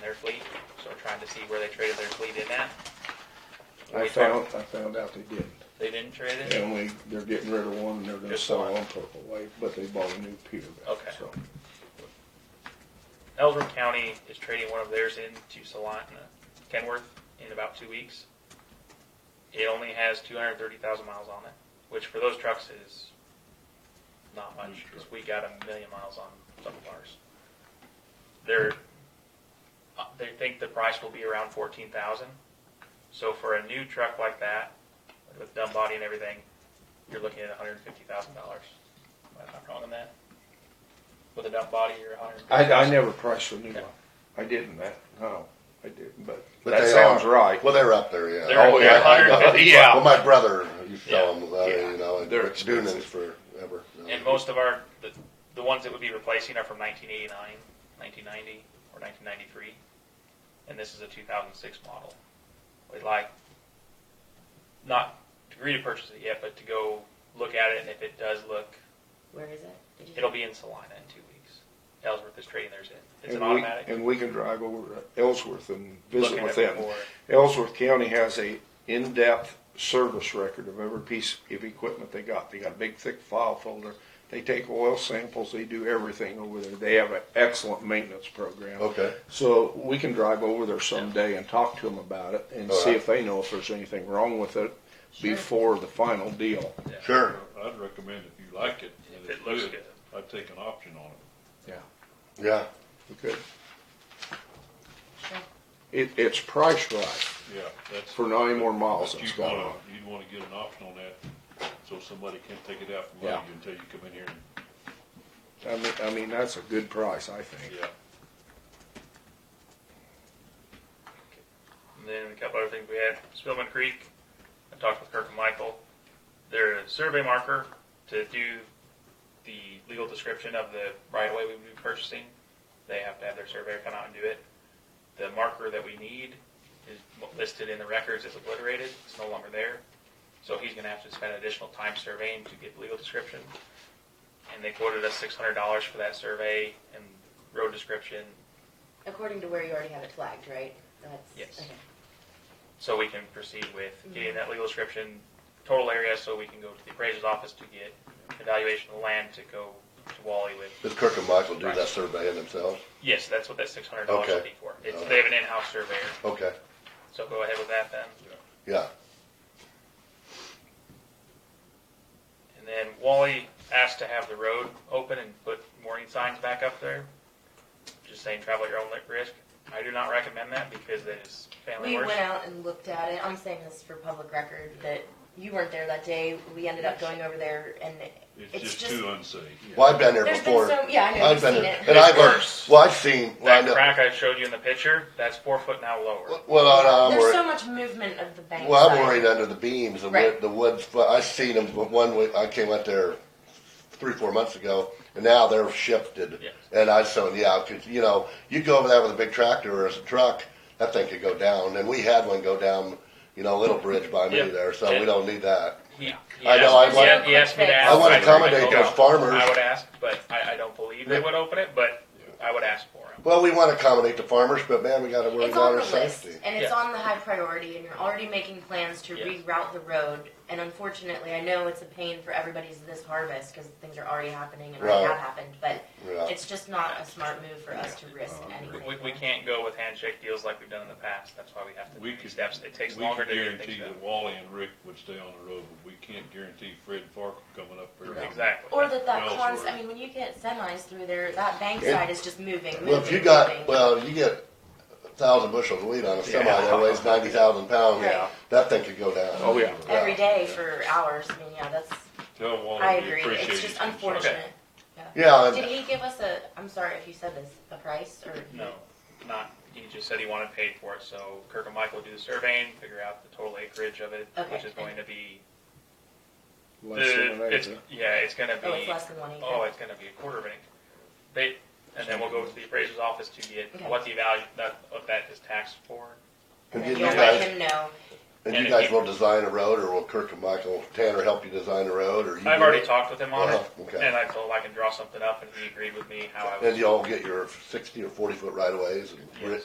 their fleet, so we're trying to see where they traded their fleet in at. I We found, talked- I found out they didn't. They didn't trade it? And we, they're getting rid of one and they're gonna Just sell one. one Purple Wave, but they bought a new Peterbilt. Okay. so. Ellsworth County is trading one of theirs into Salina, uh, Kenworth, in about two weeks. It only has 230,000 miles on it, which for those trucks is not much because we got a million miles on some of ours. They're, uh, they think the price will be around 14,000. So for a new truck like that, with dumb body and everything, you're looking at $150,000. Am I not wrong on that? With a dumb body, you're 150. I, I never priced a new Okay. one. I didn't that, no, I didn't, but But that they sounds are- right. Well, they're up there, yeah. Oh, They're up there, yeah, I know. 150 Well, my brother used to Yeah. tell them about Yeah. it, you know, and They're Doonan's expensive. forever. you know. And most of our, the, the ones that would be replacing are from 1989, 1990, or 1993. And this is a 2006 model. We'd like, not to agree to purchase it yet, but to go look at it, and if it does look, Where is it? Did you- it'll be in Salina in two weeks. Ellsworth is trading theirs in. It's an And we- automatic. And we can drive over to Ellsworth and Look visit at with it them. before. Ellsworth County has a in-depth service record of every piece of equipment they got. They got a big thick file folder. They take oil samples, they do everything over there. They have an excellent maintenance program. Okay. So we can drive over there someday and talk to them about it and All see right. if they know if there's anything wrong with it Sure. before the final deal. Yeah. Sure. I'd recommend if you like it, If and it it's looks good, good. I'd take an option on it. Yeah. Okay? Sure. It, it's priced right Yeah, that's. for nine more miles but it's you'd got wanna- on. You'd wanna get an option on that, so somebody can't take it out from Yeah. under you until you come in here and, I mean, I mean, that's a good price, I think. yeah. And then a couple other things we had. Spillman Creek, I talked with Kirk and Michael. They're a survey marker to do the legal description of the right of way we would be purchasing. They have to have their surveyor come out and do it. The marker that we need is listed in the records as obliterated. It's no longer there. So he's gonna have to spend additional time surveying to get the legal description. And they quoted us six hundred dollars for that survey and road description, According to where you already have it flagged, right? That's- Yes. okay. so we can proceed with Mm-hmm. getting that legal description, total area, so we can go to the appraiser's office to get evaluation of the land to go to Wally with. Does Kirk and Michael do Right. that surveying themselves? Yes, that's what that six hundred dollars would be Okay. for. It's, Alright. they have an in-house surveyor, Okay. so go ahead with that then. Yeah. And then Wally asked to have the road open and put warning signs back up there, just saying travel at your own risk. I do not recommend that because that is family We worse. went out and looked at it. I'm saying this for public record, that you weren't there that day. We ended up going over there and It's It's just just- too unsafe. Well, I've been there there's before. been so, yeah, I know, I've you've been seen there. it. And I've, worse. well, I've seen, That lined up. crack I showed you in the picture, that's four foot now lower. well, I- I'm There's worried. so much movement of the bank Well, I'm side. worried under the beams, the Right. wood, the wood, but I seen them, but one, week- I came out there three, four months ago, and now they're shifted. Yes. And I said, yeah, cause, you know, you go over there with a big tractor or a truck, that thing could go down, and we had one go down, you know, Little Bridge by me Yeah. there, so Yeah. we don't need that. He, he I asked- know, I he want- asked- he asked me to ask. I wanna if I would accommodate go. those farmers. I would ask, but I, I don't believe they would open it, but I would ask for them. Well, we wanna accommodate the farmers, but man, we gotta worry It's about on the our list, safety. and it's Yeah. on the high priority, and you're already making plans to Yes. reroute the road. And unfortunately, I know it's a pain for everybody's this harvest because things are already happening and already Right. have happened, but Yeah. it's just not a smart move for us to risk in any way. We, we can't go with handshake deals like we've done in the past. That's why we have to We do could- these steps. It takes We longer to can do things. guarantee that Wally and Rick would stay on the road, but we can't guarantee Fred Farquhar coming up than- here. Exactly. Or that that Well, cons, sure. I mean, when you get semis through there, that bank Yeah. side is just moving, moving, Well, if you moving. got, well, you get a thousand bushels of wheat on a semi Yeah. that weighs ninety thousand pounds, Right. that thing could go down. Oh, yeah. Every day for hours, I mean, yeah, that's, Tell Wally I we agree, appreciate it's his just concern. unfortunate. Yeah, and- Did he give us a, I'm sorry if you said this, a price, or? No, not, he just said he wanted paid for it, so Kirk and Michael do the surveying, figure out the total acreage of it, Okay. which is going to be, Uh, Less than the, an it's, acre. yeah, it's gonna Oh, it's be, less than one acre. oh, it's gonna be a quarter of an acre. They, and then we'll go to the appraiser's office to get Okay. what the value, that, of that is taxed for. and And you you'll let guys, him know. And and you if guys you- will design a road, or will Kirk and Michael Tanner help you design a road, or you? I've do already it? talked with him on it, Uh-huh, okay. and I told him I can draw something up, and he agreed with me how I And was. you all get your sixty or forty foot right of ways and Yes.